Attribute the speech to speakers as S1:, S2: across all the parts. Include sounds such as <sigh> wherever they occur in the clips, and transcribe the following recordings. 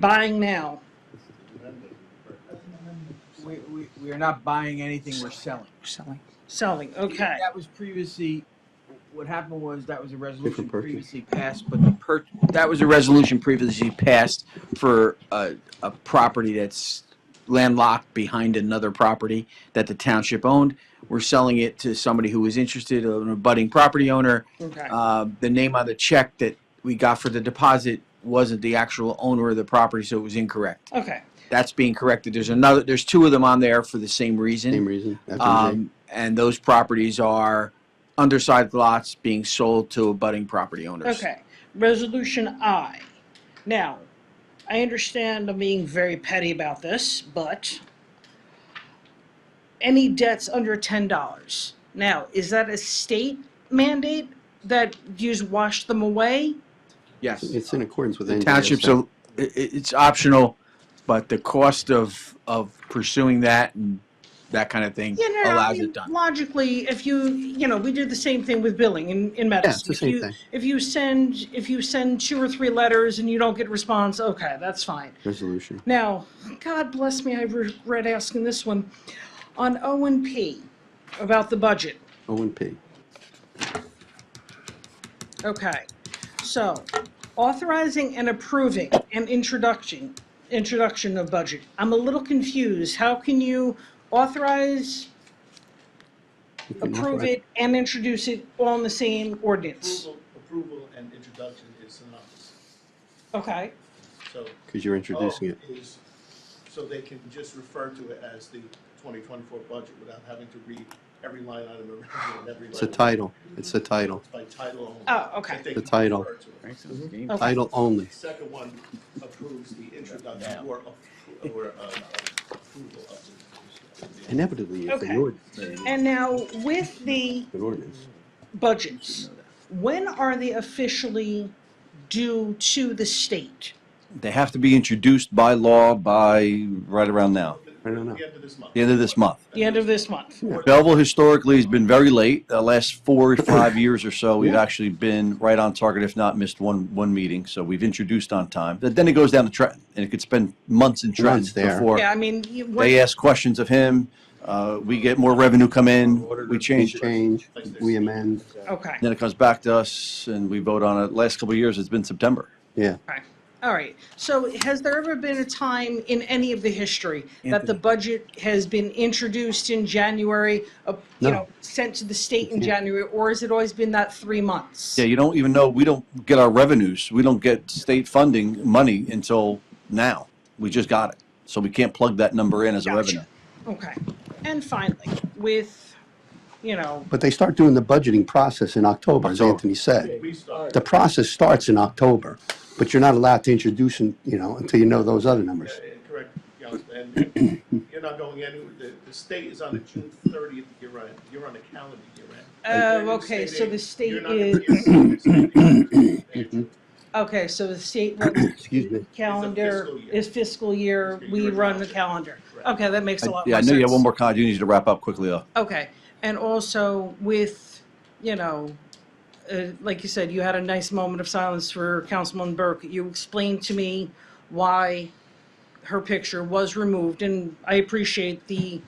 S1: Buying now.
S2: We, we, we are not buying anything, we're selling.
S1: Selling. Selling, okay.
S2: That was previously, what happened was that was a resolution
S3: Different purchase.
S2: previously passed, but the per, that was a resolution previously passed for a, a property that's landlocked behind another property that the township owned. We're selling it to somebody who was interested, an abutting property owner.
S1: Okay,
S2: Uh, the name on the check that we got for the deposit wasn't the actual owner of the property, so it was incorrect.
S1: okay,
S2: That's being corrected. There's another, there's two of them on there for the same reason.
S3: Same reason. F and J.
S2: Um, and those properties are undersized lots being sold to abutting property owners.
S1: okay. Resolution I. Now, I understand I'm being very petty about this, but any debts under ten dollars. Now, is that a state mandate that you just wash them away?
S2: Yes.
S3: It's in accordance with. NJSA.
S2: Townships, are- i- i- it's optional, but the cost of, of pursuing that and that kind of thing
S1: You know, I
S2: allows
S1: mean,
S2: it done.
S1: logically, if you, you know, we do the same thing with billing in, in medicine.
S3: Yeah, it's the
S1: If
S3: same
S1: you-
S3: thing.
S1: If you send, if you send two or three letters and you don't get response, okay, that's fine.
S3: Resolution.
S1: Now, God bless me, I regret asking this one. On O and P, about the budget.
S3: O and P.
S1: Okay, so authorizing and approving and introduction, introduction of budget. I'm a little confused. How can you authorize,
S3: You can
S1: approve
S3: authorize-
S1: it, and introduce it all in the same ordinance?
S4: Approval, approval and introduction is synonymous,
S1: Okay,
S4: so.
S3: Cause you're introducing it.
S4: O is- so they can just refer to it as the twenty twenty-four budget without having to read every line item and read every
S3: It's a
S4: letter.
S3: title. It's a title.
S4: It's by title only.
S1: oh, okay,
S4: If they
S3: The
S4: can
S3: title.
S4: refer to it.
S1: Okay.
S3: Title only.
S4: The Second one approves the introduction or, appro- or, uh, approval of the.
S3: Inevitably, it's
S1: Okay.
S3: an ordinance.
S1: And now with the
S3: An ordinance.
S1: budgets, when are they officially due to the state?
S5: They have to be introduced by law by right around now,
S3: I don't know.
S4: The end of this month.
S5: the end of this month.
S1: The end of this month?
S5: Belleville historically has been very late. The last four
S3: <clears throat>
S5: or five years or so, we've actually been right on target, if not missed one, one meeting. So we've introduced on time. But then it goes down to Trenton, and it could spend months in Trenton
S3: Months there.
S5: before
S1: Yeah, I mean, you- what-
S5: they ask questions of him. Uh, we get more revenue come in, we
S3: We
S5: change it.
S3: change, we amend.
S1: okay,
S5: Then it comes back to us, and we vote on it. Last couple of years, it's been September.
S3: Yeah.
S1: okay, all right. So has there ever been a time in any of the history that the
S2: Anthony.
S1: budget has been introduced in January, uh, you
S3: No.
S1: know, sent to the state in
S3: Mhm.
S1: January, or has it always been that three months?
S5: Yeah, you don't even know, we don't get our revenues, we don't get state funding money until now. We just got it. So we can't plug that number in as a
S1: Gotcha.
S5: revenue.
S1: Okay, and finally, with, you know,
S3: But they start doing the budgeting process in October, as
S5: October.
S3: Anthony said.
S4: We start.
S3: The process starts in October, but you're not allowed to introduce, them, you know, until you know those other numbers.
S4: Yeah, and Correct, Councilman, and you're not going anywhere, the, the state is on a June thirtieth year end, you're on a calendar year end.
S1: Oh,
S4: You're in the
S1: okay, so the state
S4: aid, you're not gonna be-
S1: okay, so the
S5: <coughs>
S1: state runs
S3: Excuse me.
S1: calendar
S4: fiscal year.
S1: is fiscal year,
S4: Fiscal
S1: we
S4: year
S1: run the
S4: calendar.
S1: calendar.
S4: Correct.
S1: Okay, that makes a
S5: I-
S1: lot more
S5: Yeah, I
S1: sense.
S5: know you have one more comment, you need to wrap up quickly though.
S1: Okay, and also with, you know, uh, like you said, you had a nice moment of silence for Councilman Burke. You explained to me why her picture was removed, and I appreciate the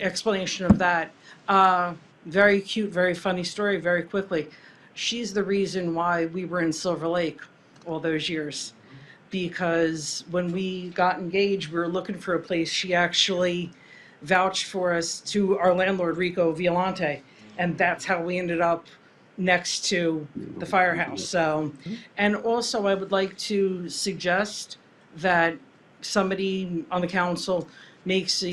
S1: explanation of that. Uh, Very cute, very funny story, very quickly. She's the reason why we were in Silver Lake all those years. Because when we got engaged, we were looking for a place. She actually vouched for us to our landlord Rico Violante, and that's how we ended up next to the firehouse. So, and also I would like to suggest that somebody on the council makes a,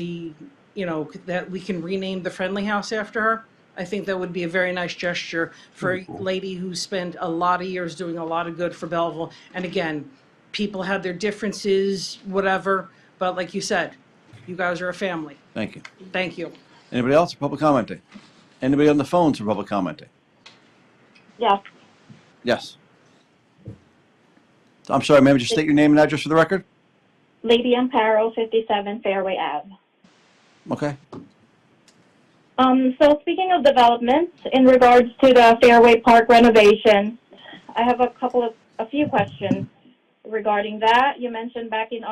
S1: you know, that we can rename the friendly house after her. I think that would be a very nice gesture for a lady who spent a lot of years doing a lot of good for Belleville. And again, people have their differences, whatever, but like you said, you guys are a family.
S5: Thank you.
S1: Thank you.
S5: Anybody else for public commenting? Anybody on the phones for public commenting?
S6: Yes,
S5: Yes. I'm sorry, ma'am, just state your name and address for the record?
S6: Lady Amparo, 57 Fairway Ave.
S5: Okay.
S6: Um, so speaking of developments, in regards to the Fairway Park renovation, I have a couple of, a few questions. regarding that. You mentioned back in